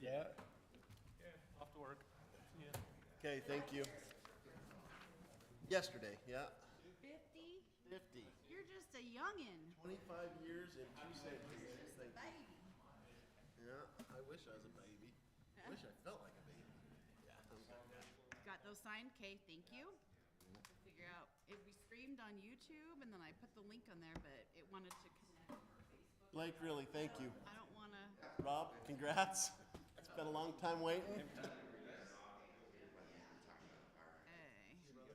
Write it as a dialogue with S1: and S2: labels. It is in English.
S1: Okay, thank you. Yesterday, yeah.
S2: 50?
S1: 50.
S2: You're just a youngin'.
S1: 25 years and two centuries. Thank you.
S2: Baby.
S1: Yeah, I wish I was a baby. I wish I felt like a baby. Yeah.
S2: Got those signed? Okay, thank you. We'll Figure out, if we streamed on YouTube and then I put the link on there, but it wanted to connect.
S1: Blake, really, thank you.
S2: I don't wanna,
S1: Rob, congrats. It's been a long time waiting.